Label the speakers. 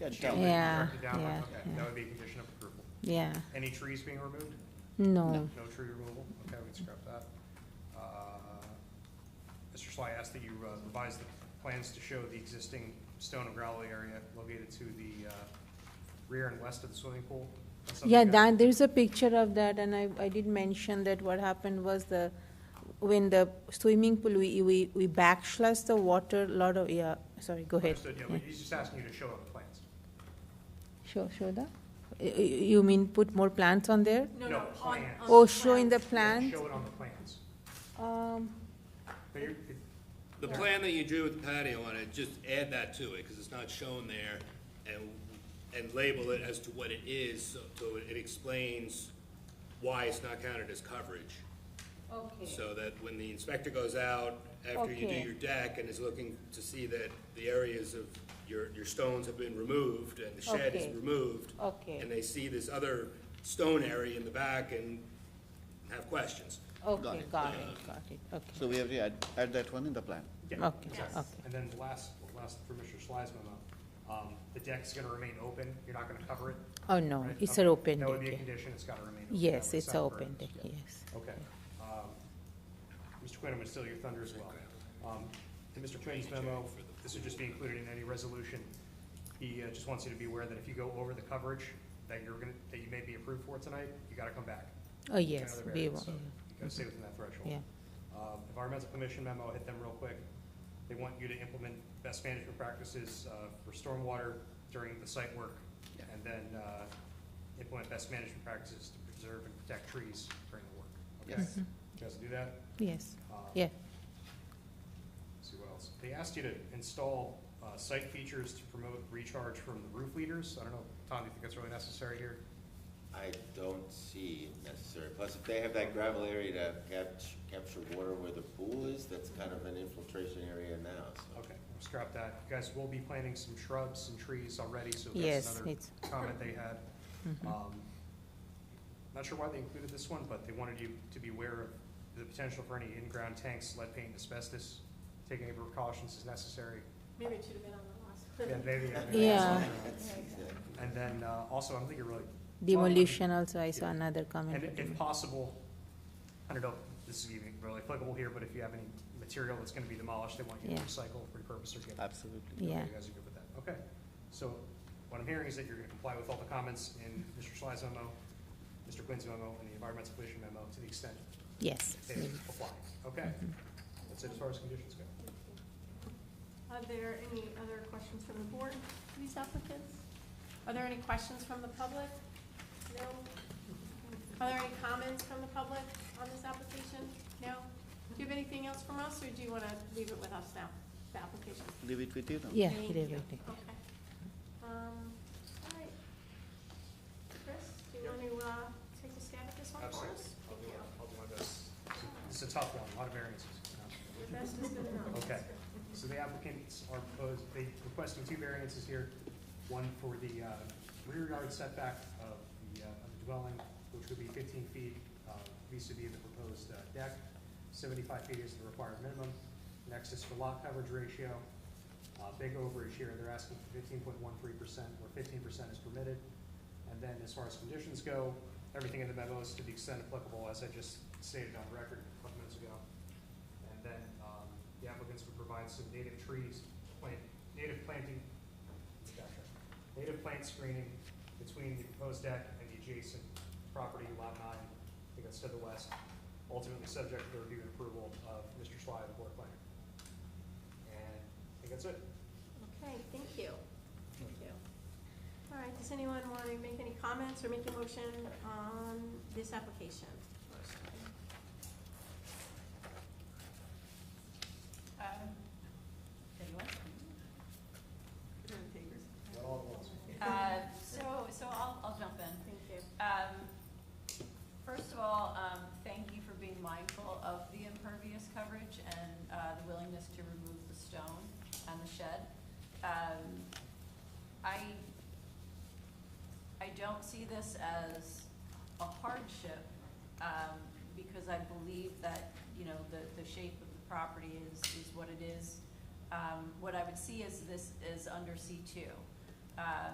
Speaker 1: Good.
Speaker 2: Shall we
Speaker 3: Yeah,
Speaker 2: mark it down?
Speaker 3: yeah,
Speaker 2: Okay,
Speaker 3: yeah.
Speaker 2: that would be a condition of approval.
Speaker 3: Yeah,
Speaker 2: Any trees being removed?
Speaker 3: no,
Speaker 2: No tree removal? Okay, we can scrap that. Uh, Mr. Sly asked that you uh, revise the plans to show the existing stone and gravel area located to the uh, rear and west of the swimming pool. That's something
Speaker 3: yeah,
Speaker 2: you
Speaker 3: that,
Speaker 2: guys-
Speaker 3: there's a picture of that, and I, I did mention that what happened was the, when the swimming pool, we, we, we backslash the water, lot of, yeah, sorry, go ahead.
Speaker 2: Understood, yeah,
Speaker 3: Yeah.
Speaker 2: but he's just asking you to show on the plans.
Speaker 3: Show, show the, y- y- you mean put more plants on there?
Speaker 2: No, no, plans.
Speaker 3: Oh, show in the plant,
Speaker 2: Show it on the plans.
Speaker 3: um,
Speaker 2: But you're- it-
Speaker 4: The plan that you drew with the patio on it, just add that to it, because it's not shown there, and, and label it as to what it is, so so it explains why it's not counted as coverage.
Speaker 5: Okay,
Speaker 4: So that when the inspector goes out, after you do
Speaker 3: Okay.
Speaker 4: your deck, and is looking to see that the areas of, your, your stones have been removed, and the shed is
Speaker 3: Okay.
Speaker 4: removed.
Speaker 3: Okay.
Speaker 4: And they see this other stone area in the back and have questions.
Speaker 3: okay,
Speaker 1: it.
Speaker 3: got it, got it, okay,
Speaker 1: So we have to add, add that one in the plan.
Speaker 2: yeah.
Speaker 3: okay, okay.
Speaker 2: And then the last, the last for Mr. Sly's memo, um, the deck's gonna remain open, you're not gonna cover it?
Speaker 3: Oh, no,
Speaker 2: right?
Speaker 3: it's
Speaker 2: Okay,
Speaker 3: an open
Speaker 2: That would be a
Speaker 3: deck, yeah.
Speaker 2: condition, it's gotta remain open.
Speaker 3: yes,
Speaker 2: That was
Speaker 3: it's an
Speaker 2: set
Speaker 3: open
Speaker 2: first.
Speaker 3: deck, yes.
Speaker 2: Okay. Um, Mr. Quinn, I'm gonna steal your thunder as well. Um, In Mr. Quinn's memo, this would just be included in any resolution. He uh, just wants you to be aware that if you go over the coverage that you're gonna, that you may be approved for tonight, you gotta come back.
Speaker 3: Oh,
Speaker 2: It's
Speaker 3: yes,
Speaker 2: another
Speaker 3: we,
Speaker 2: variance, so
Speaker 3: will.
Speaker 2: You gotta stay within that threshold.
Speaker 3: yeah,
Speaker 2: Um, Environmental Commission memo, hit them real quick. They want you to implement best management practices uh, for stormwater during the site work,
Speaker 1: Yeah.
Speaker 2: and then uh, implement best management practices to preserve and protect trees during the work. Okay,
Speaker 1: Yes.
Speaker 2: you guys do that?
Speaker 3: yes,
Speaker 2: Um,
Speaker 3: Mm-hmm. yeah,
Speaker 2: Let's see what else. They asked you to install uh, site features to promote recharge from the roof leaders. I don't know, Tom, do you think that's really necessary here?
Speaker 6: I don't see it necessary, plus if they have that gravel area to catch, capture water where the pool is, that's kind of an infiltration area now, so.
Speaker 2: Okay, we'll scrap that. You guys will be planting some shrubs and trees already, so that's
Speaker 3: Yes,
Speaker 2: another
Speaker 3: it's- Mm-hmm.
Speaker 2: comment they had. Um, Not sure why they included this one, but they wanted you to be aware of the potential for any in-ground tanks, lead paint, and asbestos, taking any precautions as necessary.
Speaker 5: maybe it should have been on the last one.
Speaker 2: Yeah, maybe-
Speaker 3: Yeah.
Speaker 6: That's exactly.
Speaker 2: And then, uh, also, I'm thinking really.
Speaker 3: demolition also, I saw another comment.
Speaker 2: And
Speaker 3: for
Speaker 2: if
Speaker 3: demolition.
Speaker 2: possible, I don't know, if this is even really applicable here, but if you have any material that's gonna be demolished, they want you to
Speaker 3: Yeah.
Speaker 2: recycle, repurpose, or get
Speaker 1: Absolutely.
Speaker 2: Okay,
Speaker 3: Yeah.
Speaker 2: You guys are good with that, okay. So what I'm hearing is that you're gonna comply with all the comments in Mr. Schley's memo, Mr. Quinn's memo, and the environmental pollution memo to the extent
Speaker 3: Yes,
Speaker 2: they
Speaker 3: we will.
Speaker 2: apply. Okay, that's it as far as conditions go.
Speaker 5: Are there any other questions from the board, these applicants? Are there any questions from the public? No? Are there any comments from the public on this application? No? Do you have anything else from us, or do you want to leave it with us now, the application?
Speaker 1: Leave it with you now.
Speaker 3: yeah,
Speaker 5: Thank
Speaker 3: it is
Speaker 5: you.
Speaker 3: okay.
Speaker 5: Okay. Um, all right. Chris, do you want to, uh, take a stab at this one for us?
Speaker 2: I'll do, I'll do my best. It's a tough one, a lot of variances.
Speaker 5: Your best is good enough.
Speaker 2: Okay, so the applicants are proposed, they requesting two variances here. One for the uh, rear yard setback of the, uh, of the dwelling, which would be fifteen feet uh, vis-à-vis the proposed uh, deck. Seventy-five feet is the required minimum. Next is for lot coverage ratio. Uh, Big overage here, they're asking for fifteen point one three percent, where fifteen percent is permitted. And then as far as conditions go, everything in the memo is to the extent applicable, as I just stated on record a couple minutes ago. And then, um, the applicants would provide some native trees, plant, native planting, gotcha, native plant screening between the proposed deck and the adjacent property, lot nine, I think that's to the west, ultimately subject to the review and approval of Mr. Schley, the board planner. And I think that's it.
Speaker 5: Okay, thank you. Thank you. All right, does anyone want to make any comments or make a motion on this application?
Speaker 7: Um, Hmm. Uh, So, so I'll, I'll jump in.
Speaker 5: Thank you.
Speaker 7: Um, First of all, um, thank you for being mindful of the impervious coverage and uh, the willingness to remove the stone and the shed. Um, I, I don't see this as a hardship, um, because I believe that, you know, the, the shape of the property is, is what it is. Um, What I would see is this is under C two.